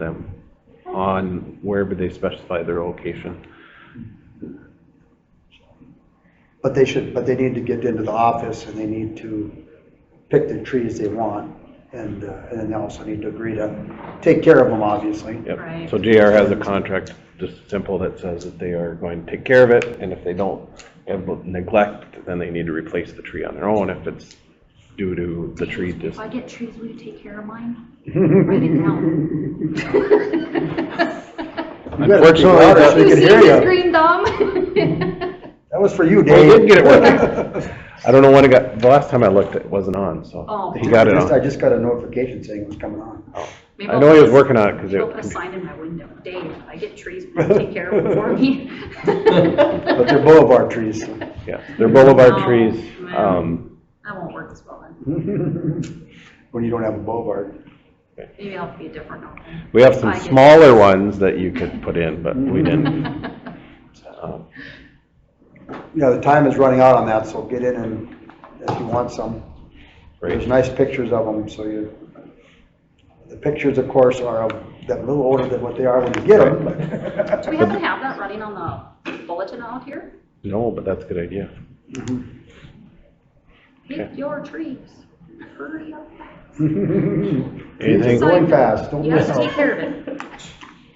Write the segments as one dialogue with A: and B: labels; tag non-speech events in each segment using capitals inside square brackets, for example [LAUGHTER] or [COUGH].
A: them on wherever they specify their location.
B: But they should, but they need to get into the office and they need to pick the trees they want. And, uh, and then they also need to agree to take care of them, obviously.
A: Yep.
C: Right.
A: So JR has a contract, just simple, that says that they are going to take care of it, and if they don't have neglect, then they need to replace the tree on their own if it's due to the tree
C: If
A: just.
C: I get trees, will you take care
A: [LAUGHS]
C: of mine? Write it down.
A: Unfortunately,
B: better
A: that-
B: be
C: You
B: can
C: see
B: hear
C: this
B: ya.
C: green
A: [LAUGHS]
C: thumb?
B: That was for you,
A: Well,
B: Dave.
A: he did get it working. I don't know when it got, the last time I looked, it wasn't on, so
C: Oh.
A: [LAUGHS] he got it
B: Just- I
A: on.
B: just got a notification saying it was coming on.
C: Maybe
A: I
C: I'll
A: know he
C: put
A: was
C: a-
A: working on it because
C: I'll put a
A: it,
C: sign in my window, Dave, if I get trees, will you take care of
A: [LAUGHS]
C: them for me?
B: But
C: [LAUGHS]
B: they're boulevard trees. so. [LAUGHS]
A: yeah, they're boulevard
C: No,
A: trees.
C: no.
A: Um,
C: Oh, That won't work as well then.
B: When you don't have a boulevard.
C: Maybe I'll be a different one.
A: we have some
C: I get- [LAUGHS]
A: smaller ones that you could put in, but we didn't. Um,
B: You know, the time is running out on that, so get in and if you want some. There's
A: Right,
B: nice pictures of them, so you, the pictures, of course, are of them a little older than what they are when you get them. but-
C: Do
B: [LAUGHS]
C: we happen to have that running on the bulletin out here?
A: no, but that's a good idea.
C: Pick
A: Okay.
C: your trees. Hurry up.
A: Anything,
B: Sorry. Going fast, don't
C: Yes,
B: miss
C: take
B: out.
C: care of it.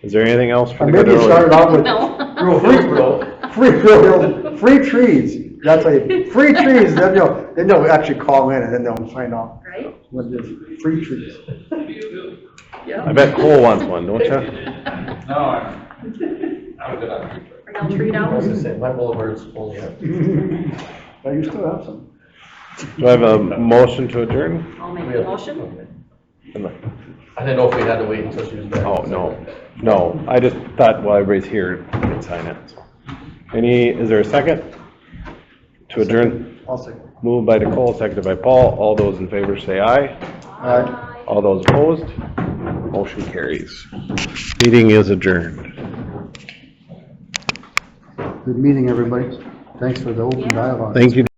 A: is there anything else for
B: Or [LAUGHS]
A: the
B: maybe
A: good
B: it
A: order?
B: started off with
C: No.
B: free, [LAUGHS] free, real- free trees. That's a, free trees, then they'll, then they'll actually call in and then they'll find out
C: Right?
B: what is free [LAUGHS] trees.
C: Yeah.
A: I bet Cole wants one, don't you?
C: [LAUGHS]
D: No, I'm, I'm good on free
C: Are y'all treed out?
E: I was gonna say, my boulevard's only up.
B: Now, you still have some.
A: Do I have a motion to adjourn?
C: I'll make a motion.
E: I didn't know if we had to wait until she was back.
A: Oh, no, no, I just thought while everybody's here, we could sign it. so. Any, is there a second? To adjourn,
B: I'll say.
A: moved by Nicole, seconded by Paul, all those in favor say aye,
B: Aye.
C: Bye.
A: all those opposed, motion carries. Meeting is adjourned.
B: Good meeting, everybody. Thanks for the open
C: Yeah.
B: dialogue.
A: Thank you.